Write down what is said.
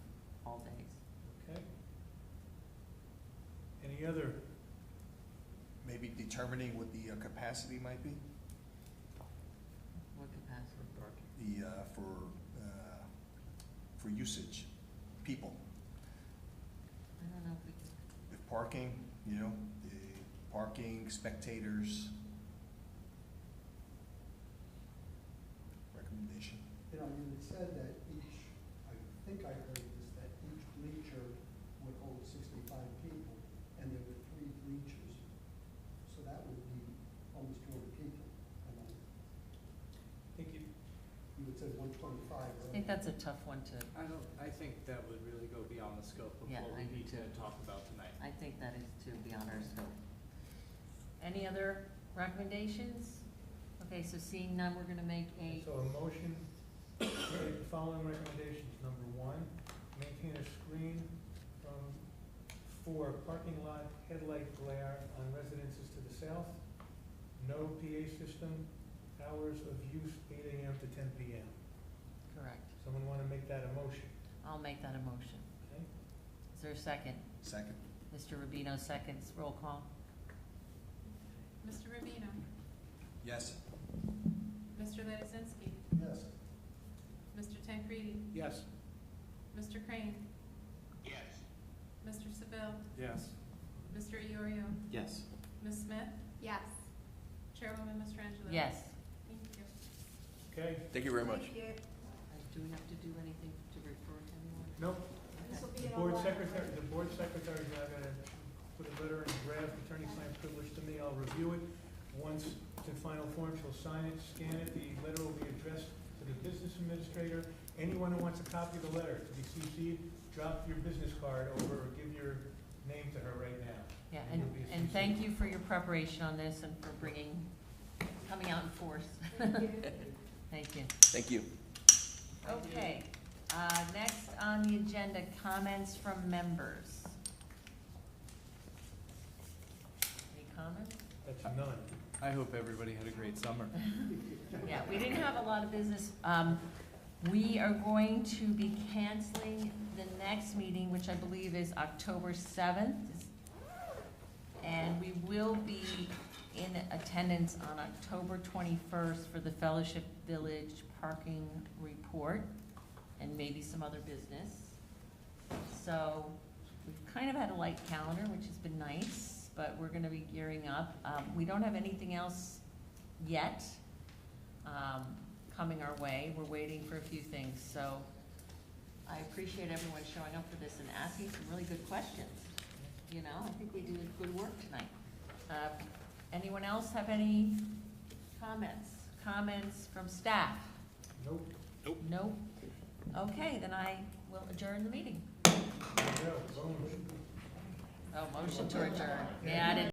the other, Maybe determining what the uh, capacity might be, What capacity? the, uh, for, uh, for usage, people. I don't know if we can, If parking, you know, the parking, spectators. Recommendation. You know, you had said that each, I think I heard this, that each bleacher would hold sixty-five people, and there were three bleachers. So that would be almost two hundred people. And then I think you, you had said one twenty-five, I right? think that's a tough one to, I don't, I think that would really go beyond the scope of Yeah, what I we do need to too. talk about tonight. I think that is too beyond our scope. Any other recommendations? Okay, so seeing none, we're gonna make a, so a motion, make the following recommendations, number one, maintain a screen from, for parking lot headlight glare on residences to the south, no PA system, hours of use eight AM to ten PM. correct, Someone wanna make that a motion, I'll make that a motion. okay? Is there a second? Second, Mr. Rubino seconds, roll call. Mr. Rubino. yes, Mr. Lizinski. Yes, Mr. Tancredi. Yes. Mr. Crane. Yes. Mr. Seville. Mm-hmm. Yes. Mr. Iorio. Yes. Ms. Smith. Yes. Chairwoman Mastrangelo. Yes. Thank you. Okay, Thank you very much. Do we have to do anything to refer to anyone? no, Okay. the board secretary, the board secretary's now gonna put a letter and draft attorney-client privilege to me, I'll review it. Once it's in final form, she'll sign it, scan it, the letter will be addressed to the business administrator. Anyone who wants a copy of the letter to be CC'd, drop your business card over or give your name to her right now. Yeah, It and, will be a and success. thank you for your preparation on this and for bringing, coming out in force. Thank you. Thank you. Okay, uh, next on the agenda, comments from members. Any comments? That's none. I hope everybody had a great summer. Yeah, we didn't have a lot of business. Um, we are going to be canceling the next meeting, which I believe is October seventh. And we will be in attendance on October twenty-first for the Fellowship Village Parking Report and maybe some other business. So we've kind of had a light calendar, which has been nice, but we're gonna be gearing up. Um, we don't have anything else yet um, coming our way. We're waiting for a few things, so I appreciate everyone showing up for this and asking some really good questions. You know, I think we did good work tonight. Uh, Anyone else have any comments? Comments from staff? Nope, Nope. Okay, then I will adjourn the meeting. no, boom. Oh, motion to adjourn. Yeah, I didn't